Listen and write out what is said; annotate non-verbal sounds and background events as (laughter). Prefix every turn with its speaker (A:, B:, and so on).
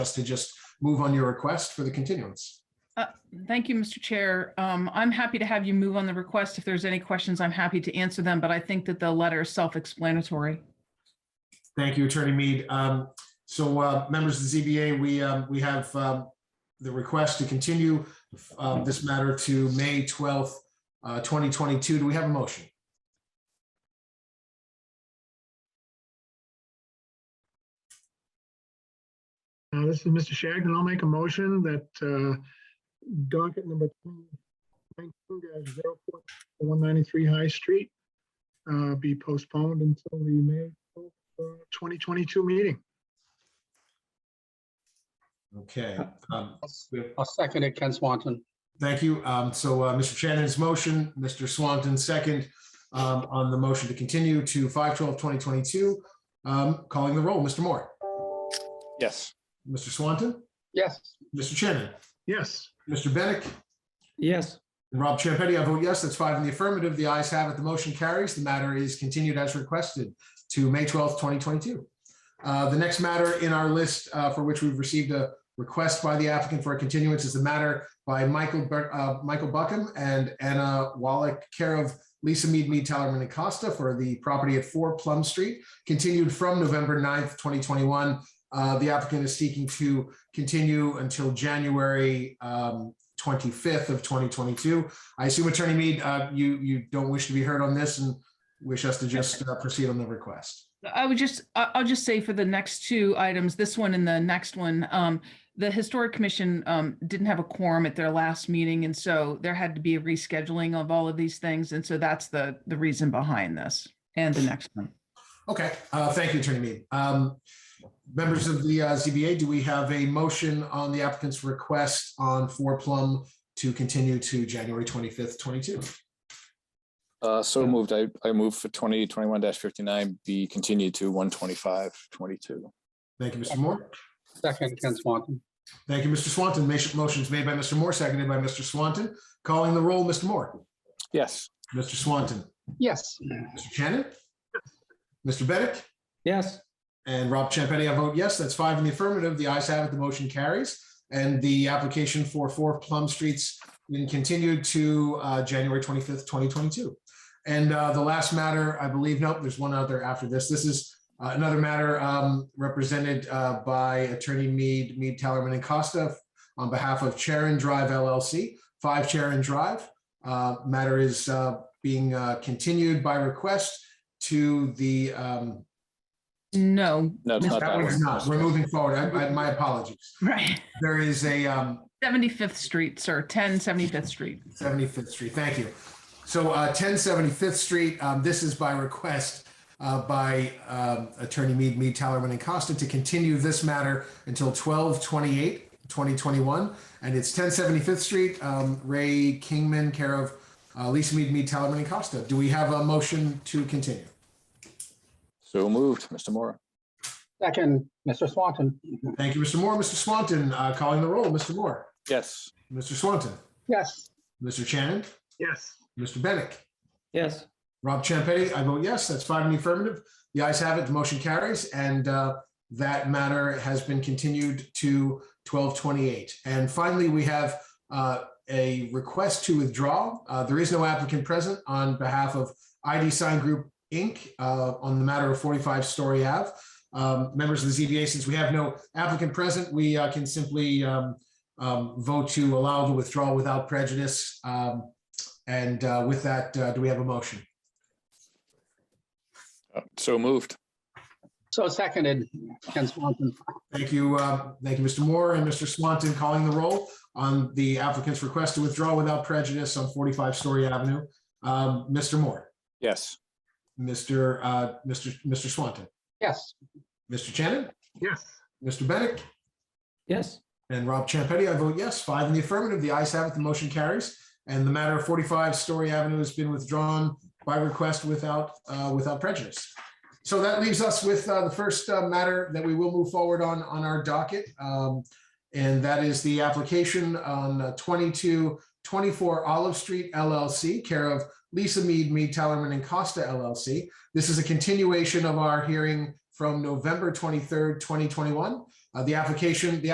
A: us to just move on your request for the continuance.
B: Thank you, Mr. Chair. Um, I'm happy to have you move on the request. If there's any questions, I'm happy to answer them, but I think that the letter is self-explanatory.
A: Thank you, Attorney Mead. Um, So uh, members of the ZBA, we, um, we have um, the request to continue um, this matter to May 12th, uh, 2022. Do we have a motion?
C: Uh, This is Mr. Shagnon. I'll make a motion that uh, docket number 19-04-193 High Street uh, be postponed until the May 12th, uh, 2022 meeting.
A: Okay. um,
D: I'll second it, Ken Swanton.
A: Thank you. Um, So uh, Mr. Shannon's motion, Mr. Swanton's second um, on the motion to continue to 5/12/2022. Um, Calling the roll, Mr. Moore,
E: Yes.
A: Mr. Swanton,
D: Yes,
A: Mr. Shannon,
C: Yes,
A: Mr. Bennett,
F: Yes,
A: And Rob Champetti, I vote yes. That's five in the affirmative. The ayes have it. The motion carries. The matter is continued as requested to May 12th, 2022. Uh, The next matter in our list uh, for which we've received a request by the applicant for a continuance is the matter by Michael, Bur- uh, Michael Buckham and Anna Wallach, care of Lisa Mead, Mead, Tellerman and Costa for the property at 4 Plum Street, continued from November 9th, 2021. Uh, The applicant is seeking to continue until January um, 25th of 2022. I assume Attorney Mead, uh, you, you don't wish to be heard on this and wish us to just uh, proceed on the request.
B: I would just, I- I'll just say for the next two items, this one and the next one, um, the Historic Commission um, didn't have a quorum at their last meeting, and so there had to be a rescheduling of all of these things, and so that's the, the reason behind this and the next one.
A: Okay, uh, thank you, Attorney Mead. Um, Members of the uh, ZBA, do we have a motion on the applicant's request on Four Plum to continue to January 25th, 22?
E: Uh, so moved. I, I moved for twenty twenty-one fifty-nine be continued to one twenty-five twenty-two.
A: Thank you, Mr. Moore.
D: second, Ken Swanton.
A: Thank you, Mr. Swanton. Ma- Motion's made by Mr. Moore, seconded by Mr. Swanton. Calling the roll, Mr. Moore,
E: Yes.
A: Mr. Swanton,
D: Yes,
A: Mr. Shannon, Mr. Bennett,
F: yes,
A: And Rob Champetti, I vote yes. That's five in the affirmative. The ayes have it. The motion carries. And the application for four Plum Streets been continued to uh, January 25th, 2022. And uh, the last matter, I believe, nope, there's one other after this. This is uh, another matter um, represented uh, by Attorney Mead, Mead, Tellerman and Costa on behalf of Charon Drive LLC, 5 Charon Drive. Uh, Matter is uh, being uh, continued by request to the um,
B: No, (laughs)
E: No, it's
B: Miss-
E: not
A: that
E: that
A: one's
E: one.
A: not. We're moving forward. I, I, my apologies.
B: right,
A: There is a, um,
B: 75th Street, sir, 10 75th Street.
A: 75th Street. Thank you. So uh, 10 75th Street, um, this is by request uh, by um, Attorney Mead, Mead, Tallerman, and Costa to continue this matter until 12 28, 2021. And it's 10 75th Street, um, Ray Kingman, care of uh, Lisa Mead, Mead, Tallerman, and Costa. Do we have a motion to continue?
E: So moved, Mr. Mora.
D: second, Mr. Swanton.
A: Thank you, Mr. Moore. Mr. Swanton, uh, calling the roll. Mr. Moore,
E: Yes.
A: Mr. Swanton,
D: Yes,
A: Mr. Shannon,
C: yes,
A: Mr. Bennett.
F: yes.
A: Rob Champetti, I vote yes. That's five in the affirmative. The ayes have it. The motion carries, and uh, that matter has been continued to twelve twenty-eight. And finally, we have uh, a request to withdraw. Uh, There is no applicant present on behalf of ID Sign Group, Inc. uh, on the matter of forty-five Story Ave. Um, Members of the ZBA, since we have no applicant present, we uh, can simply um, um, vote to allow the withdrawal without prejudice. Um, And uh, with that, uh, do we have a motion?
E: Uh, So moved.
D: so seconded, Ken Swanton.
A: Thank you, uh, thank you, Mr. Moore and Mr. Swanton calling the roll on the applicant's request to withdraw without prejudice on 45 Story Avenue. Um, Mr. Moore,
E: Yes.
A: Mr. uh, Mr. Mr. Swanton,
D: Yes,
A: Mr. Shannon,
C: yes.
A: Mr. Bennett,
F: Yes,
A: and Rob Champetti. I vote yes, five in the affirmative. The ayes have it, the motion carries. And the matter of 45 Story Avenue has been withdrawn by request without, uh, without prejudice. So that leaves us with uh, the first uh, matter that we will move forward on, on our docket. Um, And that is the application on uh, 2224 Olive Street LLC, care of Lisa Mead, Mead Tellerman and Costa LLC. This is a continuation of our hearing from November 23rd, 2021. Uh, The application, the